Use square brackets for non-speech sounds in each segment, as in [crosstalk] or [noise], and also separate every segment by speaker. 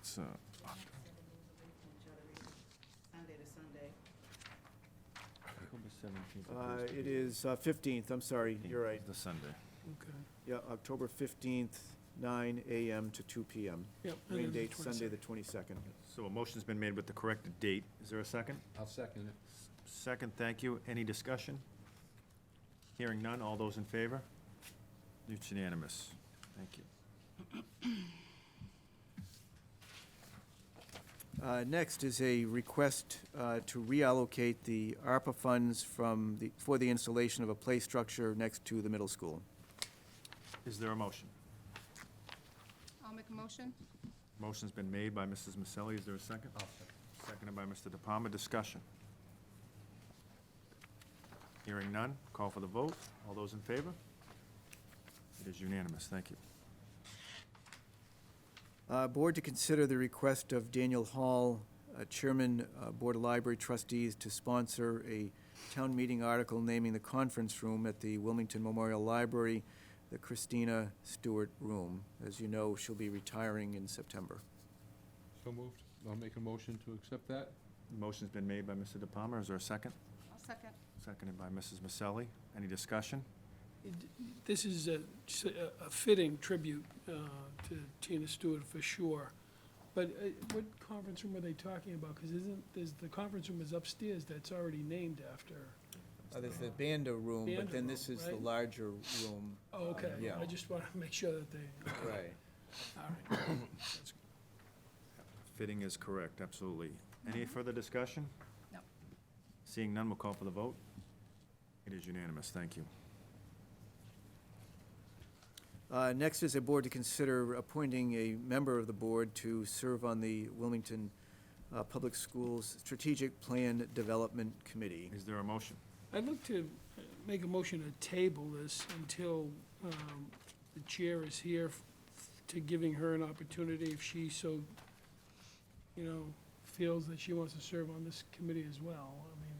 Speaker 1: it's, uh,
Speaker 2: Sunday to Sunday.
Speaker 1: October 17th.
Speaker 3: Uh,
Speaker 1: opposed to
Speaker 3: It
Speaker 1: the
Speaker 3: is uh, 15th, I'm sorry,
Speaker 1: 18th,
Speaker 3: you're right.
Speaker 1: The Sunday.
Speaker 3: Yeah, October 15th, 9 AM to 2 PM.
Speaker 4: Yep, and
Speaker 3: Rain
Speaker 4: then the
Speaker 3: date, Sunday,
Speaker 4: 22nd.
Speaker 3: the 22nd.
Speaker 1: So a motion's been made with the corrected date. Is there a second?
Speaker 5: I'll second it.
Speaker 1: Second, thank you. Any discussion? Hearing none. All those in favor? It's unanimous. Thank you.
Speaker 3: Uh, Next is a request uh, to reallocate the ARPA funds from, the for the installation of a play structure next to the middle school.
Speaker 1: Is there a motion?
Speaker 6: I'll make a motion.
Speaker 1: Motion's been made by Mrs. Maselli. Is there a second? Seconded by Mr. De Palma. Discussion. Hearing none. Call for the vote. All those in favor? It is unanimous. Thank you.
Speaker 3: Uh, Board to consider the request of Daniel Hall, uh, Chairman, uh, Board of Library Trustees, to sponsor a town meeting article naming the conference room at the Wilmington Memorial Library, the Christina Stewart Room. As you know, she'll be retiring in September.
Speaker 5: So moved. I'll make a motion to accept that.
Speaker 1: Motion's been made by Mr. De Palma. Is there a second?
Speaker 6: I'll second.
Speaker 1: Seconded by Mrs. Maselli. Any discussion?
Speaker 4: This is a, a fitting tribute uh, to Tina Stewart for sure. But uh, what conference room are they talking about? Because isn't, there's, the conference room is upstairs that's already named after. Oh,
Speaker 3: There's the Banda Room,
Speaker 4: but then Banda this Room, is the right.
Speaker 3: larger room.
Speaker 4: Oh, okay.
Speaker 3: Yeah.
Speaker 4: I just want to make sure that
Speaker 3: [coughs]
Speaker 4: they,
Speaker 3: Right.
Speaker 4: all right. [coughs]
Speaker 1: Fitting is correct, absolutely. Any further discussion?
Speaker 6: No.
Speaker 1: Seeing none, we'll call for the vote. It is unanimous. Thank you.
Speaker 3: Uh, Next is a board to consider appointing a member of the board to serve on the Wilmington uh, Public Schools Strategic Plan Development Committee.
Speaker 1: Is there a motion?
Speaker 4: I'd like to uh, make a motion to table this until um, the chair is here f- to giving her an opportunity if she so, you know, feels that she wants to serve on this committee as well. I mean,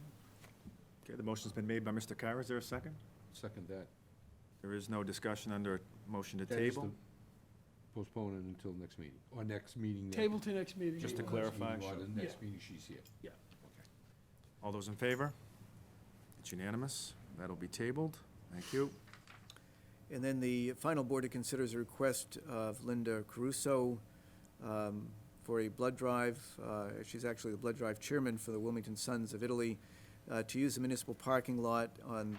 Speaker 1: Okay, the motion's been made by Mr. Kira. Is there a second?
Speaker 5: Second that.
Speaker 1: There is no discussion under a motion to
Speaker 5: That is
Speaker 1: table.
Speaker 5: to Postpone it until next meeting, or next meeting. that-
Speaker 4: Table to next meeting.
Speaker 1: Just to
Speaker 5: Next
Speaker 1: clarify,
Speaker 5: meeting, Or the
Speaker 4: sure.
Speaker 5: next
Speaker 4: Yeah.
Speaker 5: meeting she's here.
Speaker 1: All those in favor? It's unanimous. That'll be tabled. Thank you.
Speaker 3: And then the final board to consider is a request of Linda Caruso um, for a blood drive. Uh, She's actually the blood drive chairman for the Wilmington Sons of Italy, uh, to use the municipal parking lot on,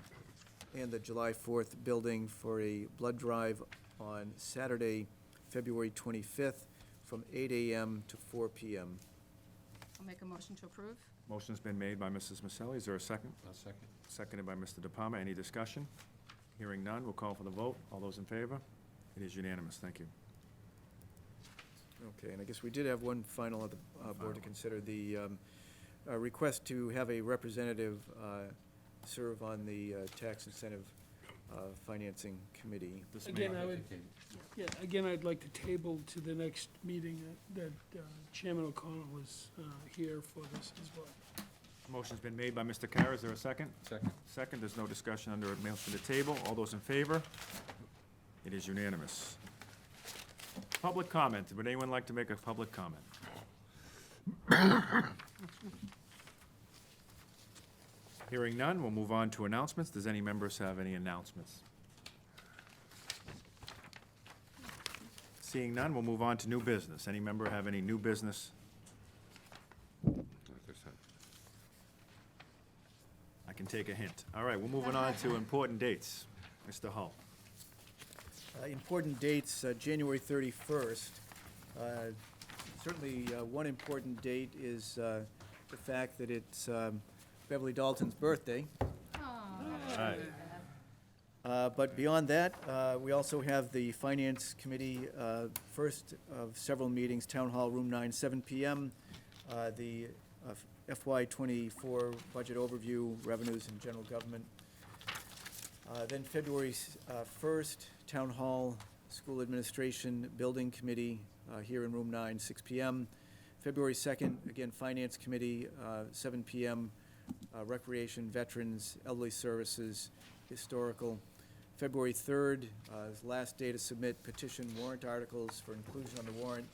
Speaker 3: and the July 4th building for a blood drive on Saturday, February 25th, from 8 AM to 4 PM.
Speaker 6: I'll make a motion to approve.
Speaker 1: Motion's been made by Mrs. Maselli. Is there a second?
Speaker 5: I'll second.
Speaker 1: Seconded by Mr. De Palma. Any discussion? Hearing none, we'll call for the vote. All those in favor? It is unanimous. Thank you.
Speaker 3: Okay, and I guess we did have one final of the uh, board
Speaker 1: Final.
Speaker 3: to consider, the um, uh, request to have a representative uh, serve on the uh, Tax Incentive uh, Financing Committee.
Speaker 1: This may-
Speaker 4: Again, I would, yeah, again, I'd like to table to the next meeting that that, uh, Chairman O'Connell was uh, here for this as well.
Speaker 1: Motion's been made by Mr. Kira. Is there a second?
Speaker 5: Second.
Speaker 1: Second, there's no discussion under a motion to table. All those in favor? It is unanimous. Public comment. Would anyone like to make a public comment? Hearing none, we'll move on to announcements. Does any members have any announcements? Seeing none, we'll move on to new business. Any member have any new business?
Speaker 5: Not this time.
Speaker 1: I can take a hint. All right, we're moving on to important dates. Mr. Hull.
Speaker 3: Uh, Important dates, uh, January 31st. Uh, Certainly, uh, one important date is uh, the fact that it's um, Beverly Dalton's birthday. Uh, But beyond that, uh, we also have the Finance Committee, uh, first of several meetings, Town Hall, Room 9, 7 PM, uh, the uh, FY '24 Budget Overview, Revenues and General Government. Uh, Then February s- uh, 1st, Town Hall, School Administration Building Committee uh, here in Room 9, 6 PM. February 2nd, again, Finance Committee, uh, 7 PM, uh, Recreation, Veterans, Elderly Services, Historical. February 3rd, uh, is last day to submit petition warrant articles for inclusion on the warrant.